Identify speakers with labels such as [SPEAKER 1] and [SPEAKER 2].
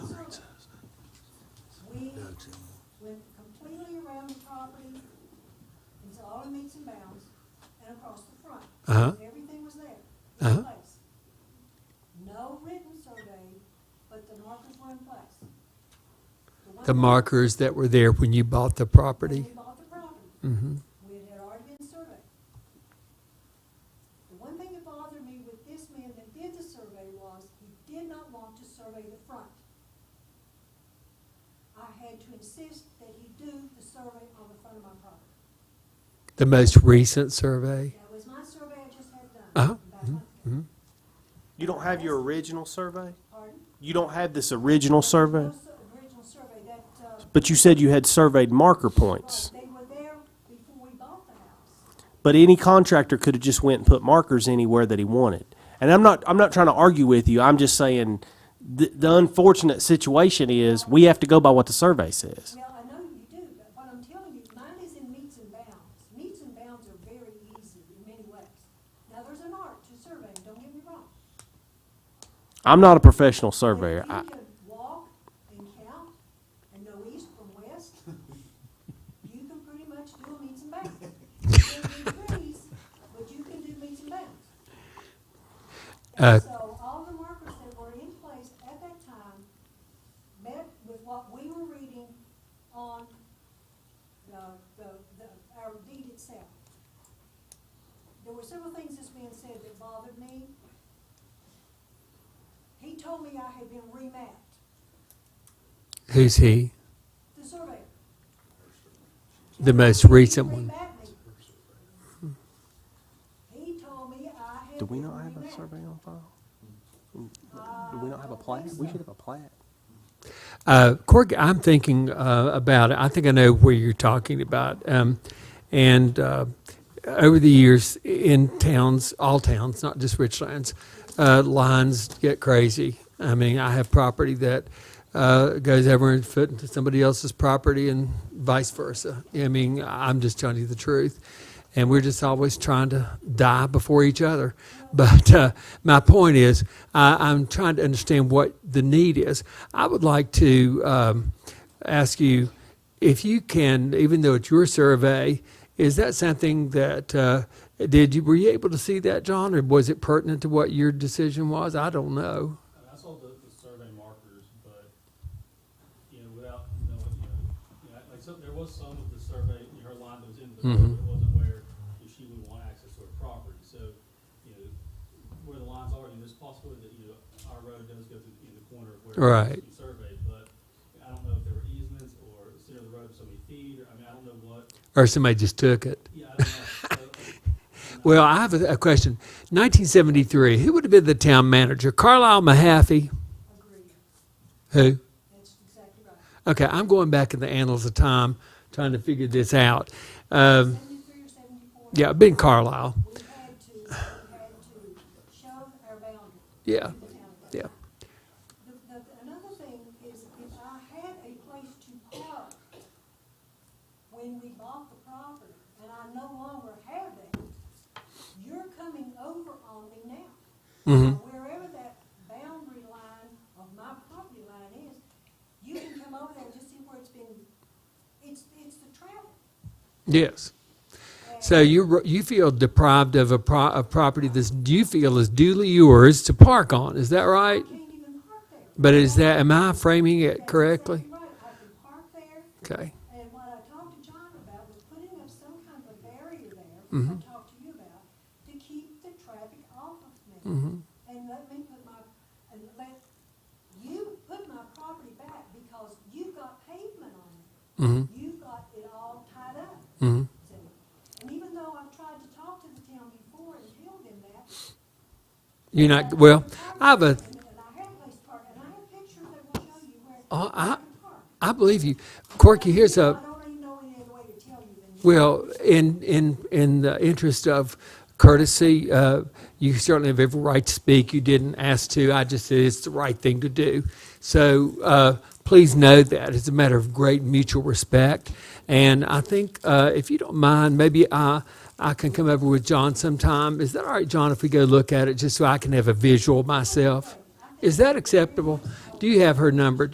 [SPEAKER 1] went completely around the property, it's all in meets and bounds, and across the front.
[SPEAKER 2] Uh-huh.
[SPEAKER 1] Everything was there,
[SPEAKER 2] Uh-huh.
[SPEAKER 1] in place. No written survey, but the markers were in place. one
[SPEAKER 2] The
[SPEAKER 1] marker-
[SPEAKER 2] markers that were there when you bought the
[SPEAKER 1] When
[SPEAKER 2] property?
[SPEAKER 1] we bought the property,
[SPEAKER 2] Mm-hmm.
[SPEAKER 1] we had already been surveyed. The one thing that bothered me with this man that did the survey was he did not want to survey the front. I had to insist that he do the survey on the front of my property.
[SPEAKER 2] The most recent survey?
[SPEAKER 1] That was my survey I just had done.
[SPEAKER 2] Uh-huh.
[SPEAKER 1] about a month ago.
[SPEAKER 2] Mm-hmm.
[SPEAKER 3] You don't have your original survey?
[SPEAKER 1] Pardon?
[SPEAKER 3] You don't have this original survey?
[SPEAKER 1] Those Original survey that, uh,
[SPEAKER 3] But you said you had surveyed marker points.
[SPEAKER 1] they were there before we bought the house.
[SPEAKER 3] But any contractor could have just went and put markers anywhere that he wanted. And I'm not, I'm not trying to argue with you, I'm just saying, the, the unfortunate situation is, we have to go by what the survey says.
[SPEAKER 1] Now, I know you do, but what I'm telling you, mine is in meets and bounds. Meets and bounds are very easy in many ways. Now, there's an art to surveying, don't get me wrong.
[SPEAKER 3] I'm not a professional
[SPEAKER 1] But
[SPEAKER 3] surveyor, I,
[SPEAKER 1] If you can walk and count and know east from west, you can pretty much do a meets and bounds. You can't do trees, but you can do meets and bounds.
[SPEAKER 2] Uh,
[SPEAKER 1] And so all the markers that were in place at that time met with what we were reading on the, the, the, our deed itself. There were several things that's being said that bothered me. He told me I had been remapped,
[SPEAKER 2] Who's he?
[SPEAKER 1] the survey.
[SPEAKER 2] The most recent
[SPEAKER 1] He
[SPEAKER 2] one?
[SPEAKER 1] remapped me. He told me I had
[SPEAKER 3] do
[SPEAKER 1] been
[SPEAKER 3] we not have a
[SPEAKER 1] remapped.
[SPEAKER 3] survey on file? Do we not have a plat? We should have a plat.
[SPEAKER 2] Uh, Cork, I'm thinking uh, about it. I think I know where you're talking about. Um, and uh, over the years, in towns, all towns, not just Richlands, uh, lines get crazy. I mean, I have property that uh, goes over and foot into somebody else's property and vice versa. I mean, I'm just telling you the truth. And we're just always trying to die before each other. But uh, my point is, I, I'm trying to understand what the need is. I would like to um, ask you if you can, even though it's your survey, is that something that uh, did you were you able to see that, John, or was it pertinent to what your decision was? I don't know.
[SPEAKER 4] I mean, I saw the, the survey markers, but, you know, without knowing, you know, you know, like, so there was some of the survey, you know, her line that was in the, survey, it wasn't where you know, she would want access to her property, so, you know, where the lines are, and there's possibility that, you know, our road does go through, in the corner of where
[SPEAKER 2] Right.
[SPEAKER 4] you surveyed, but I don't know if there were easements, or the center of the road was so many feet, or, I mean, I don't know what,
[SPEAKER 2] Or somebody just took it.
[SPEAKER 4] yeah, I don't know, so,
[SPEAKER 2] Well, I have a, a question. 1973. Who would have been the town manager? Carlisle Mahaffey.
[SPEAKER 1] Agreed,
[SPEAKER 2] Who?
[SPEAKER 1] that's exactly right.
[SPEAKER 2] Okay, I'm going back in the annals of time, trying to figure this out. Um,
[SPEAKER 1] Seventy-three or seventy-four?
[SPEAKER 2] yeah, been Carlisle.
[SPEAKER 1] We had to, we had to show our boundary to
[SPEAKER 2] Yeah,
[SPEAKER 1] the town.
[SPEAKER 2] yeah.
[SPEAKER 1] The, the, another thing is if I had a place to park when we bought the property, and I no longer have that, you're coming over on me now.
[SPEAKER 2] Mhm.
[SPEAKER 1] Wherever that boundary line of my property line is, you can come over there and just see where it's been, it's, it's the travel.
[SPEAKER 2] Yes. So you you feel deprived of a, pro, a property that you feel is duly yours to park on. Is that
[SPEAKER 1] I
[SPEAKER 2] right?
[SPEAKER 1] can't even park there.
[SPEAKER 2] But is that am I framing it
[SPEAKER 1] That's
[SPEAKER 2] correctly?
[SPEAKER 1] exactly Right, I can park there,
[SPEAKER 2] Okay.
[SPEAKER 1] and what I talked to John about was putting up some kind of a barrier there, which I
[SPEAKER 2] Mm-hmm.
[SPEAKER 1] talked to you about, to keep the traffic off of
[SPEAKER 2] Mm-hmm.
[SPEAKER 1] me. And let me put my, and let you put my property back, because you've got pavement on it.
[SPEAKER 2] Mm-hmm.
[SPEAKER 1] You've got it all tied up.
[SPEAKER 2] Mm-hmm.
[SPEAKER 1] to it. And even though I've tried to talk to the town before and tell them that,
[SPEAKER 2] You're not well. I have a.
[SPEAKER 1] and and I have a place to park, and I have pictures that will show you where
[SPEAKER 2] Oh, I-
[SPEAKER 1] I can park.
[SPEAKER 2] I believe you, Corky. Here's
[SPEAKER 1] I
[SPEAKER 2] a.
[SPEAKER 1] don't even know any other way to tell you than.
[SPEAKER 2] Well, in, in, in the interest of courtesy, uh, you certainly have every right to speak. You didn't ask to. I just said it's the right thing to do. So uh, please know that. It's a matter of great mutual respect. And I think uh, if you don't mind, maybe I, I can come over with John sometime. Is that all right, John, if we go look at it just so I can have a visual myself? Is that acceptable? Do you have her number,